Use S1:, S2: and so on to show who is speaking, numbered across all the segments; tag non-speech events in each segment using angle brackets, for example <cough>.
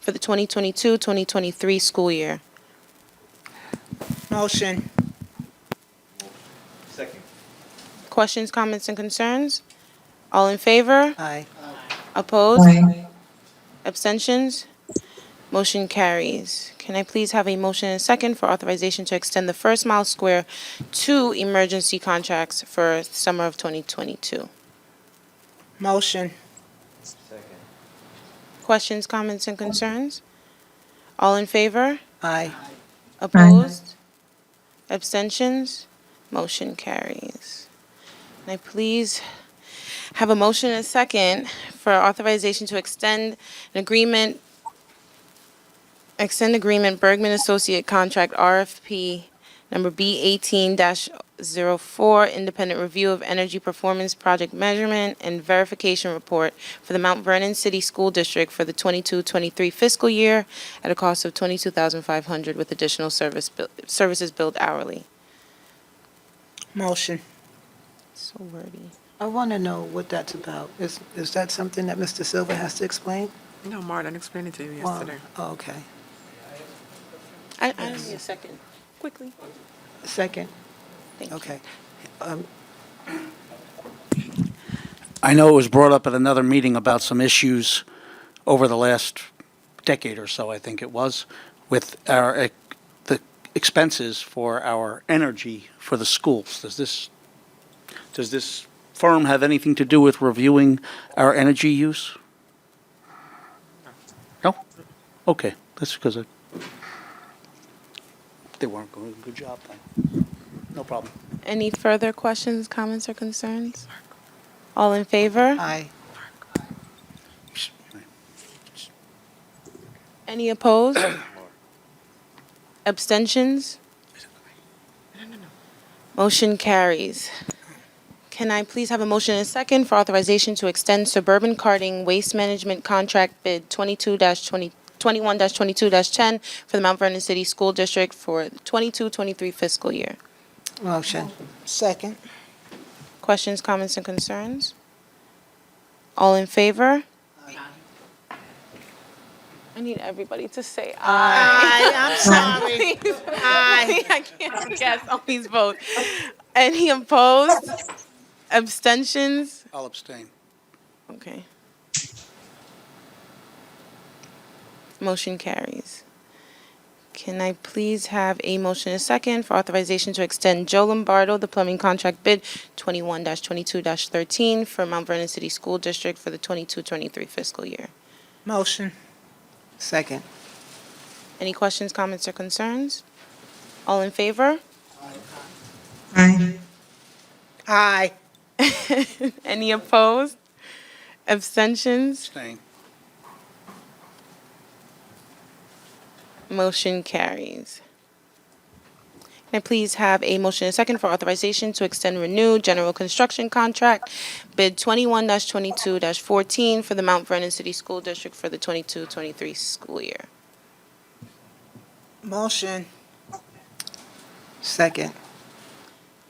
S1: for the 2022-2023 school year.
S2: Motion.
S3: Second.
S1: Questions, comments, and concerns? All in favor?
S2: Aye.
S1: Opposed?
S4: Aye.
S1: Abstentions? Motion carries. Can I please have a motion and a second for authorization to extend the First Mile Square to emergency contracts for summer of 2022?
S2: Motion.
S3: Second.
S1: Questions, comments, and concerns? All in favor?
S2: Aye.
S1: Opposed? Abstentions? Motion carries. Can I please have a motion and a second for authorization to extend an agreement, extend agreement Bergman Associate Contract RFP number B eighteen 4 independent review of energy performance project measurement and verification report for the Mount Vernon City School District for the 22-23 fiscal year at a cost of twenty-two thousand five hundred with additional service, bill- services billed hourly.
S2: Motion.
S1: So wordy.
S2: I want to know what that's about. Is, is that something that Mr. Silver has to explain?
S5: No, Martin explained it to you
S2: Well,
S5: yesterday.
S2: Okay.
S1: I, I need a second, quickly.
S2: Second?
S1: Thank you.
S2: Okay.
S6: I know it was brought up at another meeting about some issues over the last decade or so, I think it was, with our, eh, the expenses for our energy for the schools. Does this, does this firm have anything to do with reviewing our energy use? No? Okay, that's because I, they weren't doing a good job then. No problem.
S1: Any further questions, comments, or concerns? All in favor?
S2: Aye.
S1: Any opposed? Abstentions? Motion carries. Can I please have a motion and a second for authorization to extend suburban carting waste management contract bid 22-20, 21-22-10 for the Mount Vernon City School District for 22-23 fiscal year?
S2: Motion. Second?
S1: Questions, comments, and concerns? All in favor? I need everybody to say aye. <laughs>
S2: I'm sorry.
S1: Please. I can't guess on these votes. Any opposed? Abstentions?
S6: I'll abstain.
S1: Okay. Motion carries. Can I please have a motion and a second for authorization to extend Joe Lombardo the plumbing contract bid 21-22-13 for Mount Vernon City School District for the 22-23 fiscal year?
S2: Motion. Second?
S1: Any questions, comments, or concerns? All in favor? <laughs>
S4: Aye.
S2: Aye.
S1: Any opposed? Abstentions?
S6: Abstain.
S1: Motion carries. Can I please have a motion and a second for authorization to extend renew general construction contract bid 21-22-14 for the Mount Vernon City School District for the 22-23 school year?
S2: Motion. Second?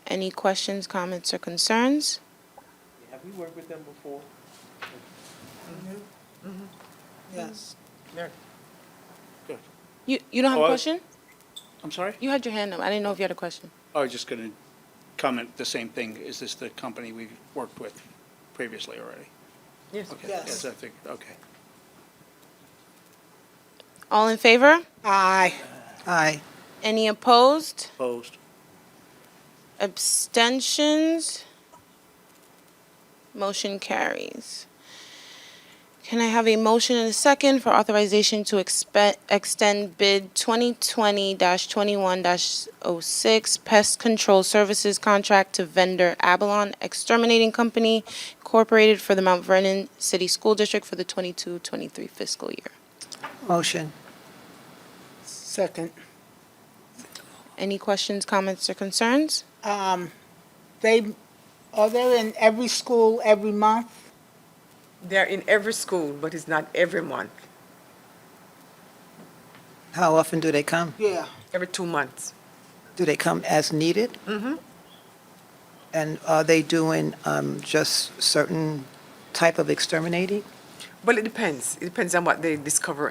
S1: Any questions, comments, or concerns?
S3: Have we worked with them before?
S2: Yes.
S1: You, you don't have a
S6: Hello?
S1: question?
S6: I'm sorry?
S1: You had your hand up. I didn't know if you had a question.
S6: I was just going to comment the same thing. Is this the company we've worked with previously already?
S5: Yes.
S6: Okay,
S2: Yes.
S6: Yes, I think, okay.
S1: All in favor?
S2: Aye. Aye.
S1: Any opposed?
S6: Opposed?
S1: Abstentions? Motion carries. Can I have a motion and a second for authorization to expe- extend bid 2020-21-06 Pest Control Services Contract to vendor Abalon Exterminating Company Incorporated for the Mount Vernon City School District for the 22-23 fiscal year?
S2: Motion. Second?
S1: Any questions, comments, or concerns?
S7: um, they, are they in every school every month?
S5: They're in every school, but it's not every month,
S2: How often do they come?
S7: Yeah.
S5: every two months.
S2: Do they come as needed? Mm-hmm. And are they doing um, just certain type of exterminating?
S5: Well, it depends. It depends on what they discover